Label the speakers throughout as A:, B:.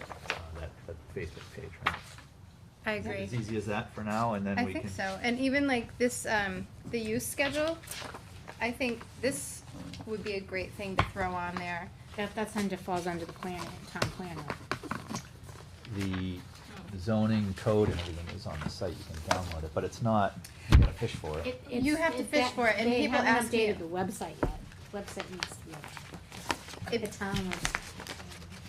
A: Uh, Facebook page, right?
B: I
A: Is it
B: agree.
A: As easy as that for now, and then
B: I
A: we can.
B: think so, and even like this, um, the use schedule, I think this would be a great thing to throw on there.
C: That, that's under, falls under the planning, town planner.
A: The zoning code and everything is on the site, you can download it, but it's not, you gotta fish for it.
B: You have to fish for it, and people ask me-
C: They haven't updated the website yet, website needs to be, updated.
B: It-
C: the town was,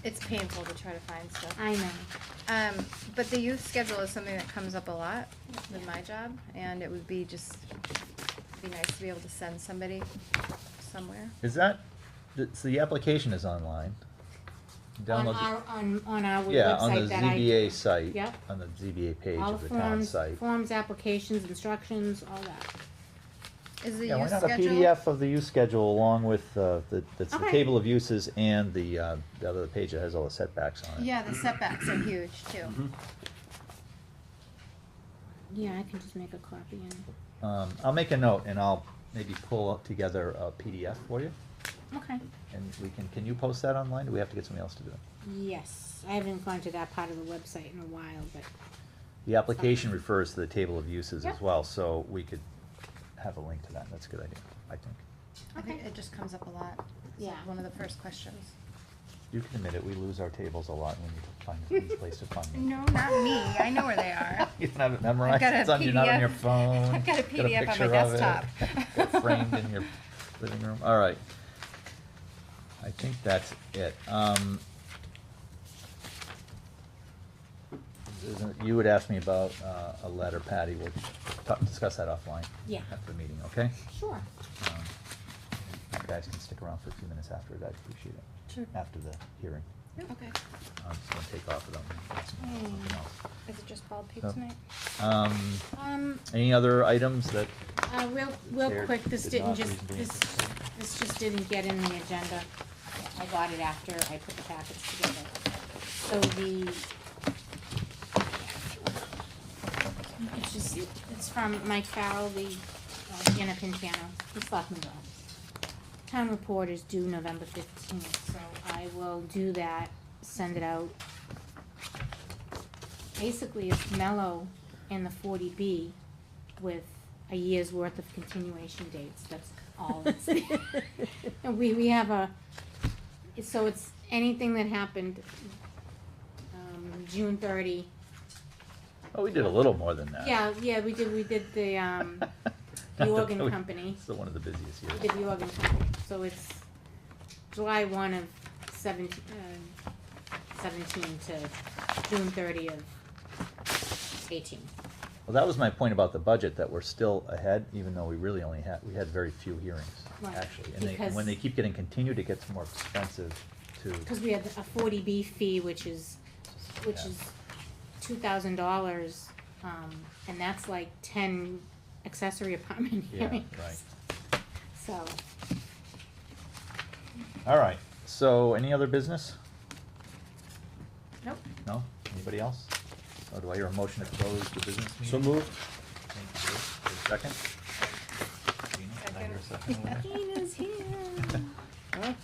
B: It's painful to try to find stuff.
C: I know,
B: Um, but the youth schedule is something that comes up a lot with my job, and it would be just, be nice to be able to send somebody somewhere.
A: Is that, th- so the application is online? You
C: on
A: download the-
C: our, on, on our
A: Yeah, on the
C: website that I.
A: ZBA site.
C: Yep.
A: On the ZBA page
C: All
A: of the town
C: forms,
A: site.
C: Forms, applications, instructions, all that.
B: Is the
A: Yeah, why
B: youth
A: not a
B: schedule?
A: PDF of the use schedule along with, uh, the, that's the
C: Okay.
A: table of uses and the, uh, the other page that has all the setbacks on it.
B: Yeah, the setbacks are huge too.
A: Mm-hmm.
C: Yeah, I can just make a copy and,
A: Um, I'll make a note and I'll maybe pull up together a PDF for you.
C: okay.
A: And we can, can you post that online? Do we have to get somebody else to do it?
C: Yes, I haven't gone to that part of the website in a while, but,
A: The application refers to the table of uses as
C: Yep.
A: well, so we could have a link to that. That's a good idea, I think.
B: I think
C: Okay.
B: it just comes up a lot. It's
C: Yeah.
B: One of the first questions.
A: You can admit it, we lose our tables a lot and we need to find a nice place to find them.
B: No, not me. I know where they are.
A: You don't have it
B: I've
A: memorized,
B: got a
A: it's on, you're not on
B: PDF
A: your phone.
B: I've got a PDF on my
A: picture of it,
B: desktop.
A: got Framed in your living room, all right. I think that's it, um. isn't- You would ask me about, uh, a letter, Patty, we'll talk, discuss that offline.
C: Yeah.
A: After the meeting, okay?
C: sure.
A: Um, You guys can stick around for a few minutes after it, I'd appreciate it,
B: Sure.
A: after the hearing.
B: Okay.
A: I'm just gonna take off without, something
C: Mm.
A: else.
B: Is it just bald
A: So-
B: pig tonight?
A: Um,
C: Um,
A: any other items that
C: Uh, real, real
A: There
C: quick, this
A: did
C: didn't
A: not
C: just,
A: reasonably
C: this,
A: anticipate.
C: this just didn't get in the agenda. I got it after I put the packets together. So the. It's just, it's from Mike Farrell, the, uh, Anna Pintano, the Selectman's office. Town report is due November fifteenth, so I will do that, send it out. Basically, it's mellow in the forty B with a year's worth of continuation dates, that's all it's. And we, we have a, so it's anything that happened, um, June thirty.
A: Oh, we did a little more than that.
C: Yeah, yeah, we did, we did the, um, the organ
A: We-
C: company.
A: Still one of the busiest
C: we
A: years.
C: did the organ company, so it's July one of seventeen, uh, seventeen to June thirty of eighteen.
A: Well, that was my point about the budget, that we're still ahead, even though we really only had, we had very few hearings,
C: Right,
A: actually. And they, and
C: because-
A: when they keep getting continued, it gets more expensive to,
C: Cause we had a forty B fee, which is which
A: Yeah.
C: is two thousand dollars, um, and that's like ten accessory apartment
A: Yeah,
C: hearings.
A: right.
C: So,
A: all right. So any other business?
C: nope,
A: No? Anybody else? Or do I hear a motion to close the business meeting?
D: So moved.
A: Thank you. Is there a Second? Gina, can I hear a second over there?
C: Gina's here.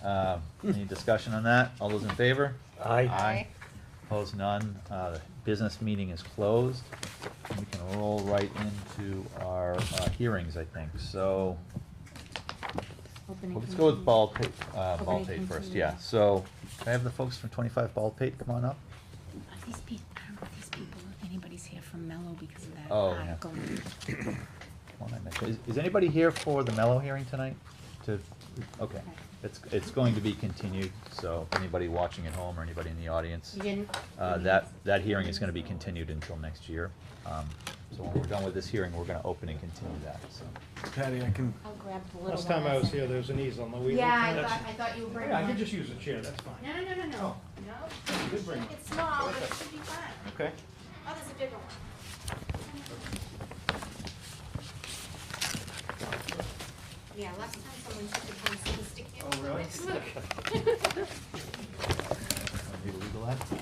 A: Uh, Any discussion on that? All those in favor?
D: Aye.
B: Aye.
A: Opposed, none. Uh, the Business meeting is closed. We can roll right into our uh, hearings, I think. So,
C: Opening
A: well, let's go with
C: continued.
A: Ball Pate, uh,
C: Okay,
A: Ball Pate first,
C: continue.
A: yeah. So, can I have the folks from twenty-five Ball Pate come on up?
E: Are these people, I don't know if these people, if anybody's here from Mellow because of that
A: Oh, yeah.
E: article.
A: Come on, I missed- Is, is anybody here for the Mellow hearing tonight? To, okay. It's, it's going to be continued, so if anybody watching at home or anybody in the audience.
C: You didn't.
A: Uh, that, that hearing is gonna be continued until next year. Um, So when we're done with this hearing, we're gonna open and continue that, so.
D: Patty, I can.
C: I'll grab the little
F: Last time I was
C: one
F: here, there was an easel on the wheel.
C: Yeah, I
F: That's-
C: thought, I thought you were bringing
F: Yeah, I
C: one.
F: could just use a chair, that's fine.
C: No, no, no, no, no, no,
F: You could bring one.
C: it's small, but it should be fine.
F: Okay.
C: Oh, there's a bigger one. Yeah, last time someone took it from the stick.
F: Oh, really?
A: Need a legal ad?